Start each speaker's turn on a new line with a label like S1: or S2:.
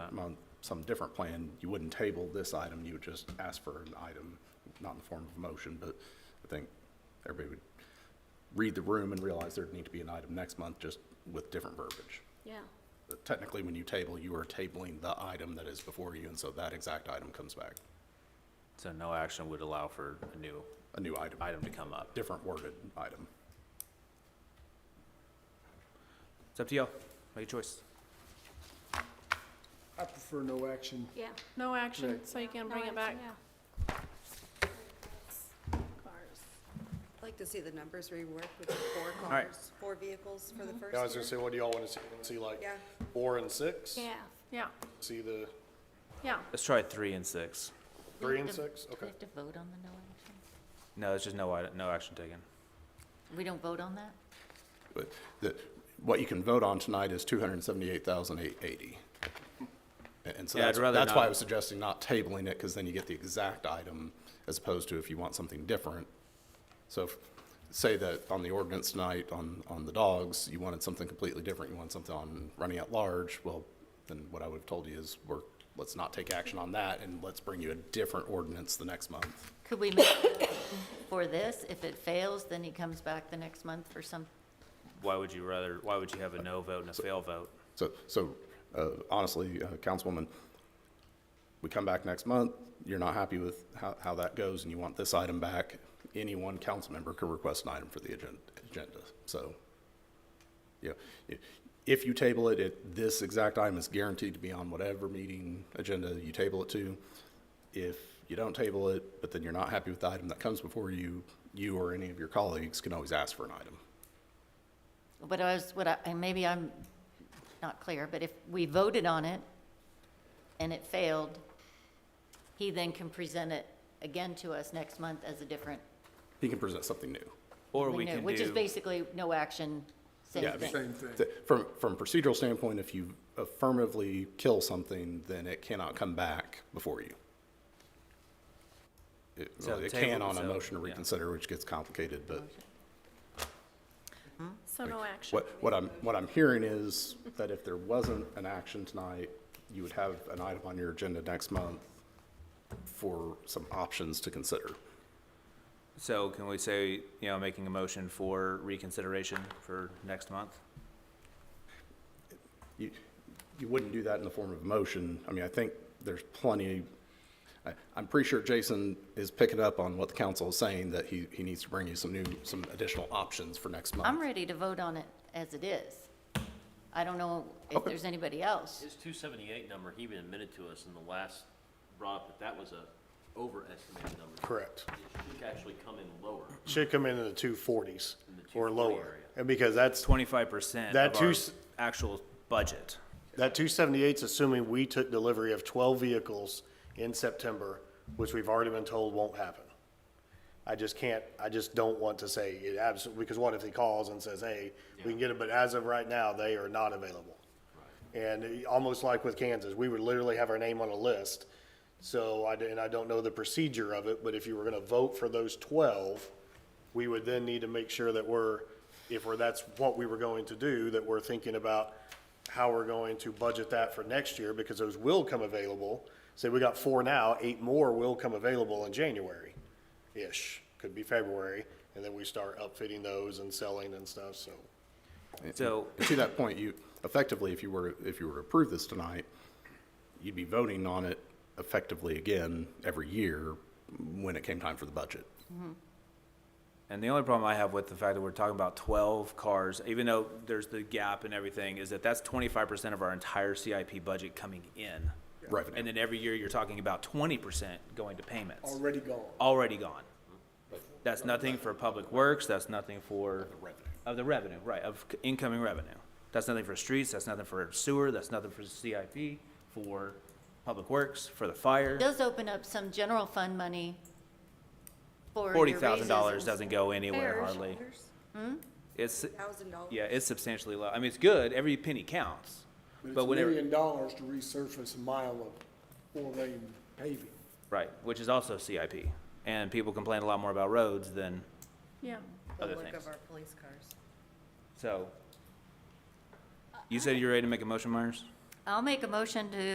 S1: on some different plan, you wouldn't table this item, you would just ask for an item, not in the form of a motion, but I think everybody would read the room and realize there'd need to be an item next month, just with different verbiage.
S2: Yeah,
S1: But Technically, when you table, you are tabling the item that is before you, and so that exact item comes back,
S3: So no action would allow for a new
S1: a new item,
S3: item to come up.
S1: different worded item.
S3: It's up to y'all. Make a choice.
S4: I prefer no action.
S2: yeah.
S5: No action,
S4: Right.
S5: so you can bring it back.
S6: I'd like to see the numbers reworked with the four
S3: right.
S6: cars, four vehicles for the first
S7: Mm-hmm. Yeah, I was gonna
S6: year.
S7: say, what do y'all wanna see? Wanna See like
S6: Yeah.
S7: four and six?
S2: Yeah.
S5: Yeah,
S7: See the
S5: yeah.
S3: Let's try three and six.
S7: three and six?
S8: Do we
S7: Okay.
S8: have to vote on the no action?
S3: No, it's just no, i- no action taken.
S8: We don't vote on that?
S1: But the, what you can vote on tonight is two hundred and seventy-eight thousand eight eighty. And so
S3: Yeah, I'd
S1: that's,
S3: rather
S1: that's why I
S3: not.
S1: was suggesting not tabling it, because then you get the exact item, as opposed to if you want something different. So if, say that on the ordinance tonight, on, on the dogs, you wanted something completely different, you want something on running at large, well, then what I would have told you is, we're, let's not take action on that, and let's bring you a different ordinance the next month.
S8: Could we make a motion for this? If it fails, then he comes back the next month for some,
S3: Why would you rather, why would you have a no vote and a fail vote?
S1: So, so uh, honestly, uh, Councilwoman, we come back next month, you're not happy with how, how that goes, and you want this item back, any one council member can request an item for the agen- agenda. So, yeah, i- if you table it, it, this exact item is guaranteed to be on whatever meeting agenda you table it to. If you don't table it, but then you're not happy with the item that comes before you, you or any of your colleagues can always ask for an item.
S8: but I was, what I, and maybe I'm not clear, but if we voted on it and it failed, he then can present it again to us next month as a different.
S1: He can present something new.
S3: Or we can do.
S8: Which is basically no action, same
S1: Yeah, I mean-
S8: thing.
S4: Same thing.
S1: Th- From, from procedural standpoint, if you affirmatively kill something, then it cannot come back before you. It,
S3: So
S1: well, it
S3: table
S1: can on a
S3: itself,
S1: motion to
S3: yeah.
S1: reconsider, which gets complicated, but
S5: So no action.
S1: what, what I'm, what I'm hearing is that if there wasn't an action tonight, you would have an item on your agenda next month for some options to consider.
S3: So can we say, you know, making a motion for reconsideration for next month?
S1: You, you wouldn't do that in the form of a motion. I mean, I think there's plenty, I, I'm pretty sure Jason is picking up on what the council is saying, that he, he needs to bring you some new, some additional options for next
S8: I'm
S1: month.
S8: ready to vote on it as it is. I don't know if there's anybody else.
S9: His two seventy-eight number, he even admitted to us in the last, brought up that that was a overestimated number.
S7: Correct.
S9: It should actually come in lower.
S7: Should come into the two forties
S9: In the
S7: or
S9: 240
S7: lower.
S9: area.
S7: And because that's,
S3: Twenty-five percent
S7: That
S3: of
S7: two
S3: our
S7: s-
S3: actual budget.
S7: that two seventy-eight's assuming we took delivery of twelve vehicles in September, which we've already been told won't happen. I just can't, I just don't want to say it absolutely, because what if he calls and says, hey, we can get it, but as of right now, they are not available. And it- almost like with Kansas, we would literally have our name on a list. So I, d- and I don't know the procedure of it, but if you were gonna vote for those twelve, we would then need to make sure that we're, if we're, that's what we were going to do, that we're thinking about how we're going to budget that for next year, because those will come available. Say we got four now, eight more will come available in January-ish, could be February, and then we start upfitting those and selling and stuff, so.
S3: So
S1: And To that point, you, effectively, if you were, if you were to approve this tonight, you'd be voting on it effectively again every year when it came time for the budget.
S3: And the only problem I have with the fact that we're talking about twelve cars, even though there's the gap and everything, is that that's twenty-five percent of our entire CIP budget coming in.
S1: Revenue.
S3: And then every year, you're talking about twenty percent going to payments,
S4: Already gone.
S3: already gone. That's nothing for public works, that's nothing for. Of the revenue, right, of c- incoming revenue. That's nothing for streets, that's nothing for sewer, that's nothing for CIP, for public works, for the fire.
S8: does open up some general fund money for your
S3: Forty
S8: raises.
S3: thousand dollars doesn't go anywhere
S2: Fair.
S3: hardly. It's,
S6: Thousand dollars.
S3: Yeah, it's substantially low. I mean, it's good. Every penny counts.
S4: But
S3: But
S4: it's a
S3: whenever,
S4: million dollars to resurface a mile of four-lane paving.
S3: right, which is also CIP. And people complain a lot more about roads than,
S5: Yeah,
S6: The
S3: other
S6: look
S3: things.
S6: of our police cars.
S3: so. You said you're ready to make a motion, Myers?
S8: I'll make a motion to